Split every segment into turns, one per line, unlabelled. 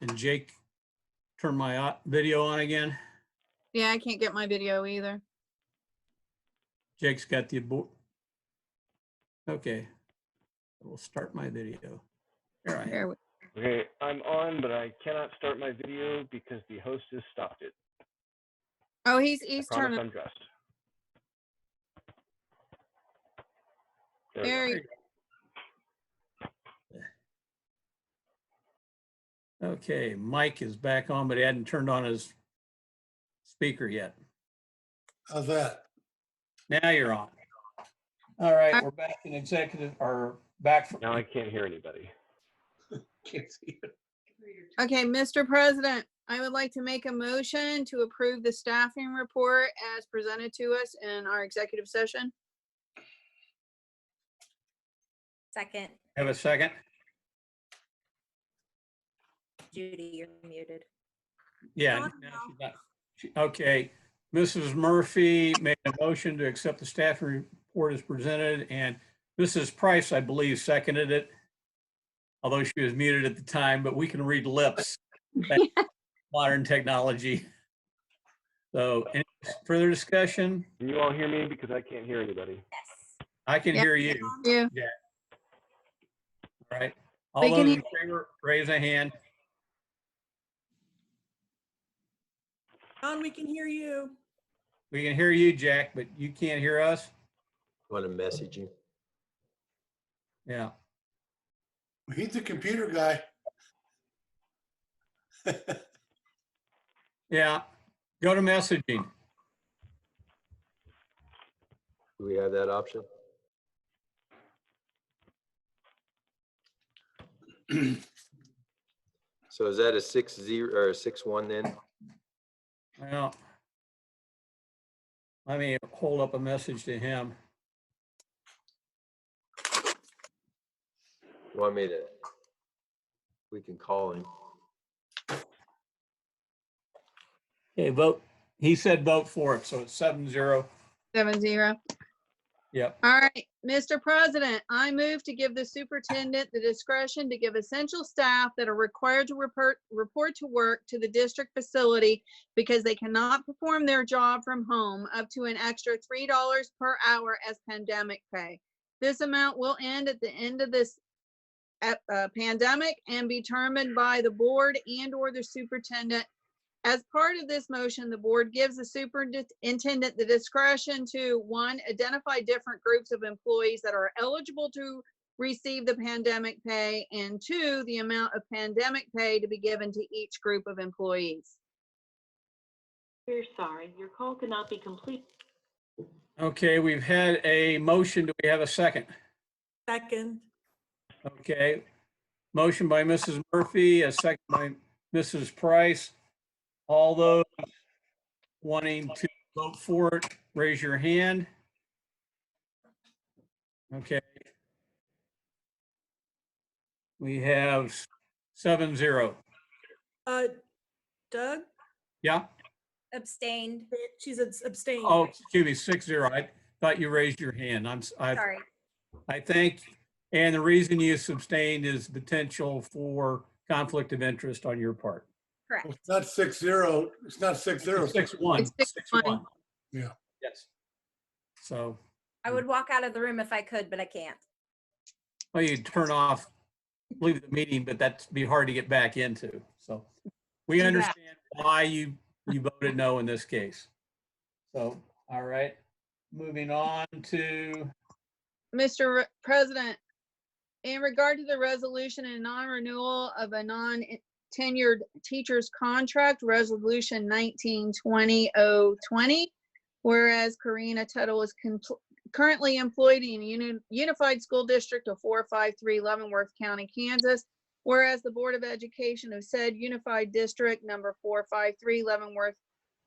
And Jake, turn my au- video on again.
Yeah, I can't get my video either.
Jake's got the abo- Okay. We'll start my video. There I am.
There we-
Okay, I'm on, but I cannot start my video because the host has stopped it.
Oh, he's, he's
I promise
turning,
I'm dressed. There we go.
there, he-
Okay, Mike is back on, but he hadn't turned on his speaker yet.
How's that?
Now you're on. All right, we're back in executive, or back from
Now I can't hear anybody.
Can't see it.
okay, Mr. President, I would like to make a motion to approve the staffing report as presented to us in our executive session.
Second,
Have a second?
Judy, you're muted.
Yeah.
Not
no,
now.
she's not. She- Okay, Mrs. Murphy made a motion to accept the staff report as presented, and Mrs. Price, I believe, seconded it. Although she was muted at the time, but we can read lips. Thank Modern technology. So any further discussion?
Can you all hear me? Because I can't hear anybody.
Yes.
I can
Yeah.
hear you,
Yeah,
all right? All
We can
those in favor, raise a hand.
John, we can hear you.
We can hear you, Jack, but you can't hear us?
Want to message you?
Yeah,
He's a computer guy.
yeah. Go to messaging.
Do we have that option? So is that a six zero or a six one then?
Well, let me hold up a message to him.
Want me to? We can call him.
Okay, vote. He said vote for it, so it's seven zero.
seven zero.
Yep.
All right, Mr. President, I move to give the superintendent the discretion to give essential staff that are required to report, report to work to the district facility because they cannot perform their job from home up to an extra three dollars per hour as pandemic pay. This amount will end at the end of this ep- uh, pandemic and be determined by the board and/or the superintendent. As part of this motion, the board gives the superintendent the discretion to, one, identify different groups of employees that are eligible to receive the pandemic pay, and two, the amount of pandemic pay to be given to each group of employees.
We're sorry, your call cannot be complete.
Okay, we've had a motion. Do we have a second?
Second,
Okay. Motion by Mrs. Murphy, a second by Mrs. Price. All those wanting to vote for it, raise your hand. Okay. We have seven zero.
uh, Doug,
Yeah?
Abstained,
she's abs- abstained.
Oh, excuse me, six zero. I thought you raised your hand. I'm, s- I,
sorry.
I think, and the reason you abstained is potential for conflict of interest on your part.
Correct.
It's not six zero, it's not six zero.
Six one,
It's
six
six
one.
one.
Yeah.
Yes. So,
I would walk out of the room if I could, but I can't.
well, you turn off, leave the meeting, but that'd be hard to get back into. So we
Yeah.
understand why you, you voted no in this case. So, all right, moving on to,
Mr. Re- President, in regard to the resolution and non-renewal of a non-tenured teacher's contract, Resolution 1920-020, whereas Karina Tuttle is compl- currently employed in Uni- Unified School District of 453 Leavenworth County, Kansas, whereas the Board of Education of said Unified District Number 453 Leavenworth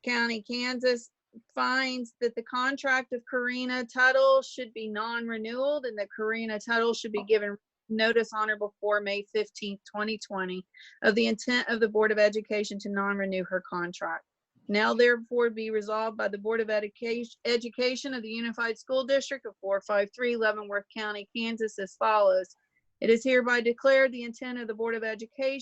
County, Kansas, finds that the contract of Karina Tuttle should be non-renewed and that Karina Tuttle should be given notice on or before May fifteenth, twenty twenty, of the intent of the Board of Education to non-renew her contract. Now therefore be resolved by the Board of Education, Education of the Unified School District of four five three Leavenworth County, Kansas as follows. It is hereby declared the intent of the Board of Education